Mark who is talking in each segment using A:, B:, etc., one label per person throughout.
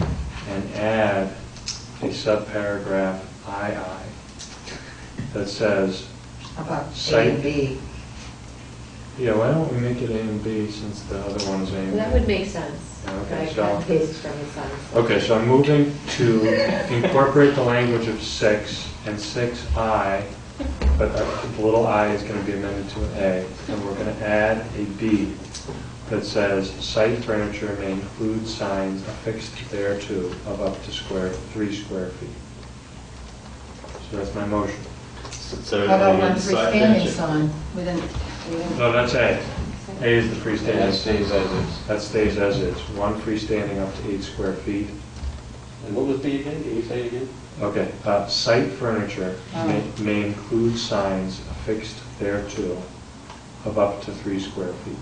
A: and add a subparagraph II that says,
B: About A
A: Second.
B: and B.
A: yeah, why don't we make it A and B since the other one is A and B?
C: That would make sense.
A: Yeah, okay,
C: Right,
A: so-
C: cut and paste from the sentence.
A: Okay, so I'm moving to incorporate the language of six and six I, but uh, the little i is going to be amended to an A, and we're going to add a B that says, "Site furniture may include signs affixed thereto of up to square, three square feet." So that's my motion.
B: How about one freestanding sign with an,
A: No, that's A. A is the freestanding.
D: And it stays as is.
A: That stays as is, one freestanding up to eight square feet,
D: And what was B again? Did you say it again?
A: Okay, uh, site furniture may-
B: Oh.
A: may include signs affixed thereto of up to three square feet.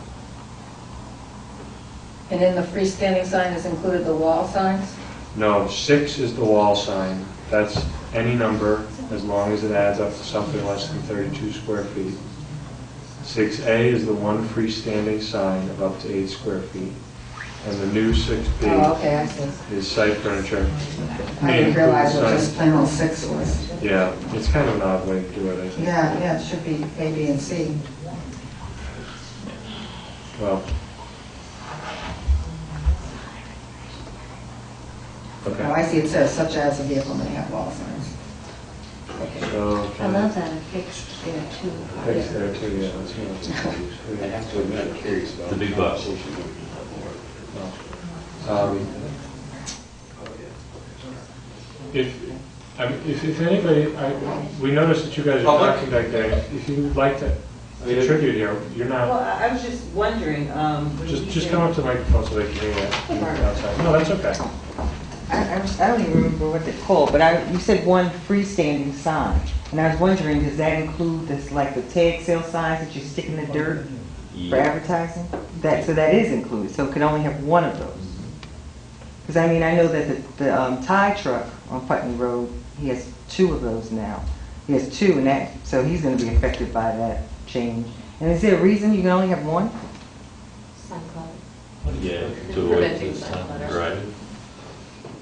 B: and in the freestanding sign is included the wall signs?
A: No, six is the wall sign, that's any number as long as it adds up to something less than 32 square feet. 6A is the one freestanding sign of up to eight square feet. And the new 6B
B: Oh, okay, I see.
A: is site furniture.
E: I
A: may
E: didn't
A: include
E: realize what just
A: signs-
E: plain old six was.
A: Yeah, it's kind of an odd way to do it, I think.
E: Yeah, yeah, it should be A, B, and C.
A: Well. Okay.
E: Now, Oh, I see it says such as a vehicle may have wall signs.
A: So,
C: I
A: can
C: love
A: I
C: that affixed there too.
A: fix there too, yeah, that's what
D: I
A: I'm-
D: have to admit, I'm curious about.
F: The big bucks.
D: conversation with the board.
A: Um, If, I mean, if, if anybody, I, we noticed that you guys are
D: Public?
A: talking back there, if you'd like to
D: I mean, it-
A: contribute here, you're
G: Well,
A: not,
G: I I was just wondering, um. when
A: just,
G: you
A: just
G: say-
A: come up to the microphone so they can hear you outside. No, that's okay.
H: I, I was- I don't even remember what they're called, but I, you said one freestanding sign. And I was wondering, does that include this, like the tag sale signs that you stick in the dirt for advertising? That, so that is included, so it can only have one of those. Because I mean, I know that the, the um, tie truck on Putney Road, he has two of those now. He has two and that, so he's gonna be affected by that change. And is there a reason you can only have one?
C: Sun Club.
F: Yeah, to avoid
C: Preventing
F: this
C: sun
F: time,
C: clutter.
F: right?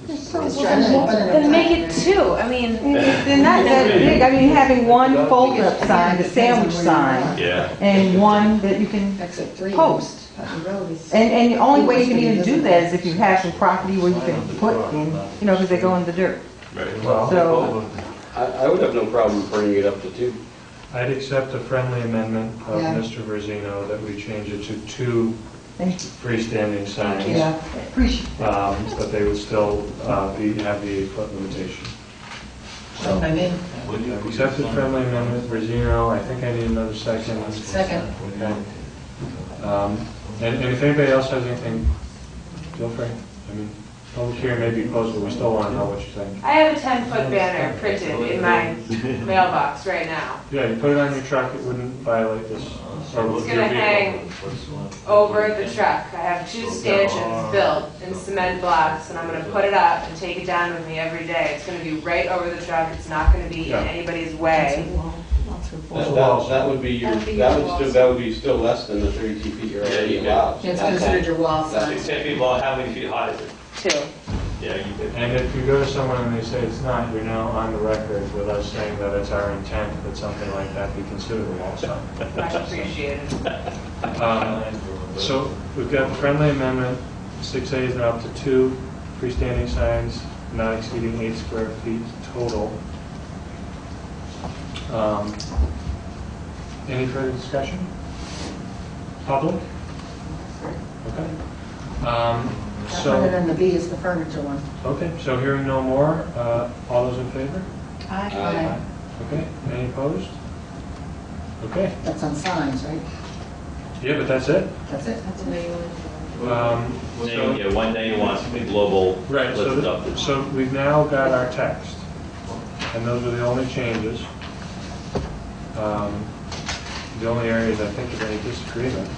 E: Just trying to open it up.
C: Then make it two, I mean,
H: They're not that big, I mean, having one fold-up sign, the sandwich sign,
F: Yeah.
H: and one that you can
E: Exit three.
H: post.
E: Putney Road is-
H: And, and the only way you can even do that is if you have some property where you can put in, you know, because they go in the dirt.
F: Right.
A: Well,
B: Oh.
H: So,
D: I, I would have no problem bringing it up to two.
A: I'd accept a friendly amendment of
E: Yeah.
A: Mr. Verzino that we change it to two
H: thank you.
A: freestanding signs.
E: Yeah,
H: Appreciate it.
A: um, but they would still uh, be, have the eight-foot limitation.
E: that's what I mean.
A: Accepted friendly amendment, Rosino, I think I need another second.
E: Second.
A: Okay. Um, And and if anybody else has anything, feel free. I mean, public hearing may be closed, but we still want to know what you think.
I: I have a ten-foot banner printed in my mailbox right now,
A: Yeah, you put it on your truck, it wouldn't violate this. or
I: It's
A: your
I: gonna
A: vehicle.
I: hang over the truck. I have
F: Oh,
I: two stanchions built in cement blocks, and I'm gonna put it up and take it down with me every day. It's gonna be right over the truck, it's not gonna be in
A: Yeah.
I: anybody's way.
D: That, that- that would be your,
C: That'd be
D: that
C: your
D: would
C: wall
D: still, that would be still less than the thirty-two feet you're
F: Yeah,
D: already
F: you can-
D: allowed. So
B: it's
D: that's-
B: considered your wall
F: That's
B: sign.
F: it's gonna be long, how many feet high is it?
I: Two.
F: Yeah, you could.
A: And if you go to someone and they say it's not, you're now on the record with us saying that it's our intent that something like that be considered a wall sign.
I: Much appreciated.
A: Um, So we've got friendly amendment, six A's and up to two freestanding signs not exceeding eight square feet total. Um, Any further discussion? Public? Okay. Um,
E: That one and
A: So,
E: then the B is the furniture one.
A: okay, so hearing no more, uh, all those in favor?
D: Aye.
A: Okay, any opposed? Okay,
E: That's on signs, right?
A: yeah, but that's it.
E: That's it?
C: that's the way you want to do it.
A: Um, so-
F: Name, yeah, one name, one global,
A: Right, so,
F: lifted up.
A: th- so we've now got our text, and those are the only changes. Um, The only areas I think of any disagreement.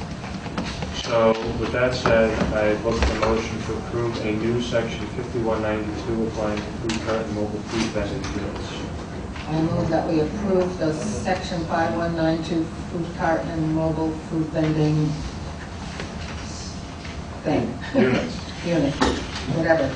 A: So with that said, I look for motion to approve a new section 5192 applying to food cart and mobile food vending units.
E: I move that we approve the section 5192 food cart and mobile food vending thing.
A: Units.
E: Unit, whatever.